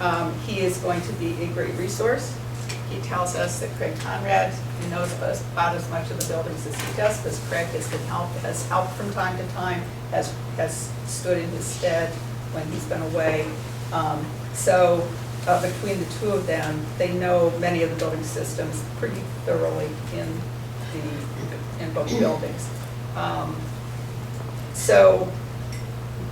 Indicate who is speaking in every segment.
Speaker 1: Um, He is going to be a great resource. He tells us that Craig Conrad knows us about as much of the buildings as he does, because Craig has been help, has helped from time to time, has, has stood in his stead when he's been away. Um, So uh, between the two of them, they know many of the building systems pretty thoroughly in the, in both buildings. Um, So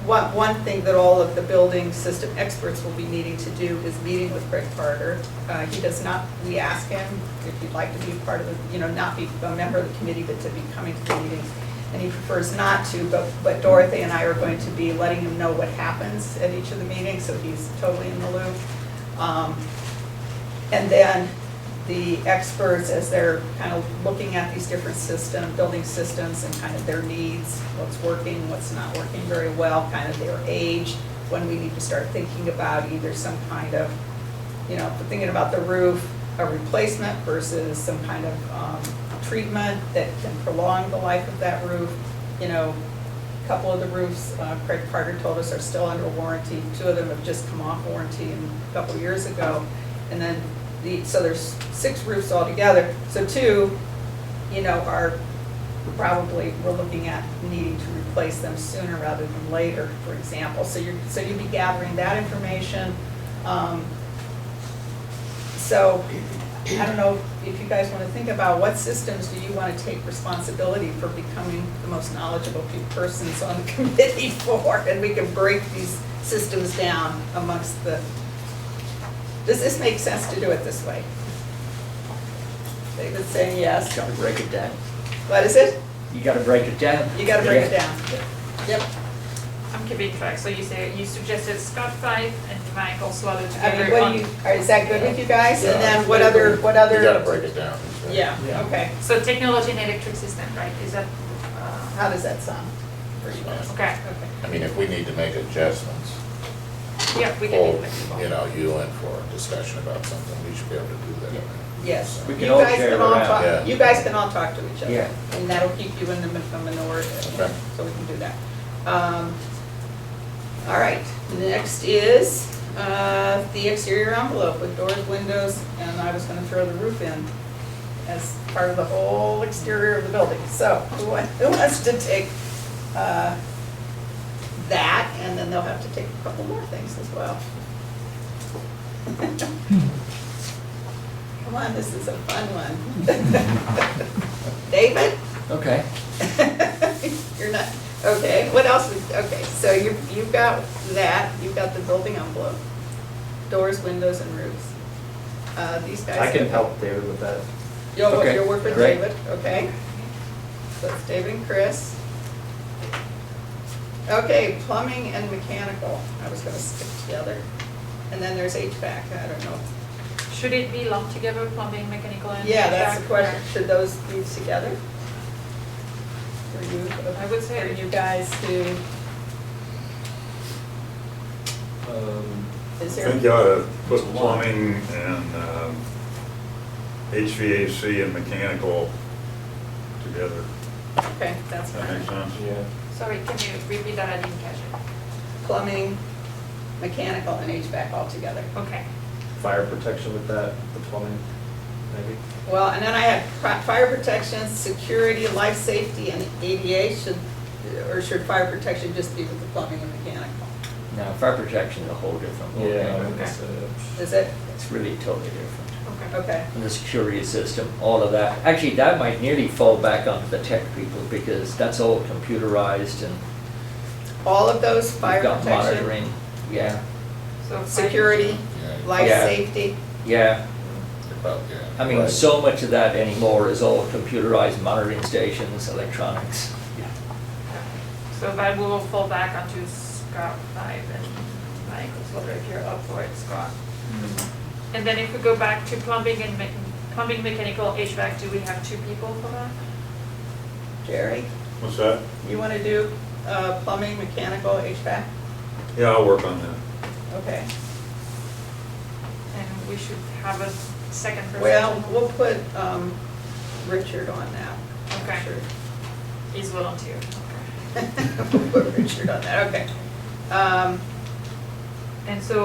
Speaker 1: one, one thing that all of the building system experts will be needing to do is meeting with Greg Carter. Uh, He does not, we ask him if he'd like to be part of, the you know, not be a member of the committee, but to be coming to the meetings. And he prefers not to, but, but Dorothy and I are going to be letting him know what happens at each of the meetings, so he's totally in the loop. Um, and then the experts, as they're kind of looking at these different system, building systems and kind of their needs, what's working, what's not working very well, kind of their age, when we need to start thinking about either some kind of, you know, if we're thinking about the roof, a replacement versus some kind of um, treatment that can prolong the life of that roof. You know, a couple of the roofs, uh, Craig Carter told us are still under warranty. Two of them have just come off warranty a couple of years ago. And then the, so there's six roofs altogether. So two, you know, are probably, we're looking at needing to replace them sooner rather than later, for example. So you're, so you'd be gathering that information. Um, So I don't know if you guys want to think about what systems do you want to take responsibility for becoming the most knowledgeable few persons on the committee for? And we can break these systems down amongst the does this make sense to do it this way? David's saying yes.
Speaker 2: Gotta break it down.
Speaker 1: What is it?
Speaker 2: You gotta break it down.
Speaker 1: You gotta break it
Speaker 2: Yeah.
Speaker 1: down. Yep.
Speaker 3: I'm keeping track, so you say, you suggested Scott five and Michael Swallow
Speaker 1: I mean,
Speaker 3: together
Speaker 1: Uh, what do
Speaker 3: on.
Speaker 1: you, are- is that good with you guys? And then
Speaker 4: Yeah.
Speaker 1: what other, what other?
Speaker 4: You gotta break it down.
Speaker 1: Yeah,
Speaker 2: Yeah.
Speaker 1: okay.
Speaker 3: So technology and electric system, right, is that, uh,
Speaker 1: How does that sound?
Speaker 4: Pretty much.
Speaker 3: okay,
Speaker 1: Okay.
Speaker 4: I mean, if we need to make adjustments,
Speaker 3: yeah, we can be
Speaker 4: pull,
Speaker 3: flexible.
Speaker 4: you know, you in for a discussion about something, we should be able to do that.
Speaker 2: Yeah.
Speaker 1: Yes.
Speaker 2: We
Speaker 1: You
Speaker 2: can all
Speaker 1: guys
Speaker 2: share
Speaker 1: can
Speaker 2: it
Speaker 1: all
Speaker 2: around.
Speaker 1: talk-
Speaker 4: Yeah.
Speaker 1: You guys can all talk to each other.
Speaker 2: Yeah.
Speaker 1: And that'll keep you in the min- the minority,
Speaker 4: Okay.
Speaker 1: so we can do that. Um, All right, next is uh, the exterior envelope with doors, windows, and I was gonna throw the roof in as part of the whole exterior of the building. So who wa- who wants to take uh, that? And then they'll have to take a couple more things as well. Come on, this is a fun one. David?
Speaker 2: Okay.
Speaker 1: You're not, okay, what else was, okay, so you, you've got that, you've got the building envelope, doors, windows, and roofs. Uh, these guys.
Speaker 5: I can help David with that.
Speaker 1: You'll,
Speaker 2: Okay,
Speaker 1: you'll work with
Speaker 2: great.
Speaker 1: David, okay? So it's David and Chris. Okay, plumbing and mechanical, I was gonna stick together. And then there's HVAC, I don't know.
Speaker 3: Should it be lumped together, plumbing, mechanical and?
Speaker 1: Yeah, that's the
Speaker 3: HVAC?
Speaker 1: question, should those be together? For you, for the-
Speaker 3: I would say-
Speaker 1: For you guys to,
Speaker 5: Um,
Speaker 1: is
Speaker 6: I
Speaker 1: there?
Speaker 6: think you ought to put
Speaker 2: It's a lot.
Speaker 6: plumbing and um, HVAC and mechanical together.
Speaker 1: Okay, that's
Speaker 6: That makes
Speaker 1: fine.
Speaker 6: sense?
Speaker 5: Yeah.
Speaker 3: Sorry, can you repeat that, I didn't catch it.
Speaker 1: Plumbing, mechanical, and HVAC all together.
Speaker 3: Okay,
Speaker 5: Fire protection with that, the plumbing, maybe?
Speaker 1: Well, and then I have pri- fire protection, security, life safety, and ADA should, or should fire protection just be with the plumbing and mechanical?
Speaker 2: Now, fire protection is a whole different
Speaker 5: Yeah, I
Speaker 2: ballgame.
Speaker 5: would say that.
Speaker 1: Is it?
Speaker 2: It's really totally different.
Speaker 3: okay.
Speaker 1: Okay,
Speaker 2: And the security system, all of that. Actually, that might nearly fall back onto the tech people because that's all computerized and
Speaker 1: all of those, fire
Speaker 2: you've got
Speaker 1: protection,
Speaker 2: monitoring. Yeah,
Speaker 3: So. fire-
Speaker 1: security,
Speaker 4: Yeah,
Speaker 1: life
Speaker 2: Yeah.
Speaker 1: safety,
Speaker 2: yeah.
Speaker 4: about, yeah.
Speaker 2: I mean,
Speaker 5: Right.
Speaker 2: so much of that anymore is all computerized monitoring stations, electronics.
Speaker 3: So that will fall back onto Scott five and Michael Swallow, if you're up for it, Scott. And then if we go back to plumbing and mech- plumbing, mechanical, HVAC, do we have two people for that?
Speaker 1: Jerry?
Speaker 6: What's that?
Speaker 1: You want to do uh, plumbing, mechanical, HVAC?
Speaker 6: Yeah, I'll work on that.
Speaker 1: Okay.
Speaker 3: And we should have a second person.
Speaker 1: Well, we'll put um, Richard on that.
Speaker 3: Okay.
Speaker 1: Sure.
Speaker 3: Is volunteer, okay.
Speaker 1: We'll put Richard on that, okay. Um,
Speaker 3: And so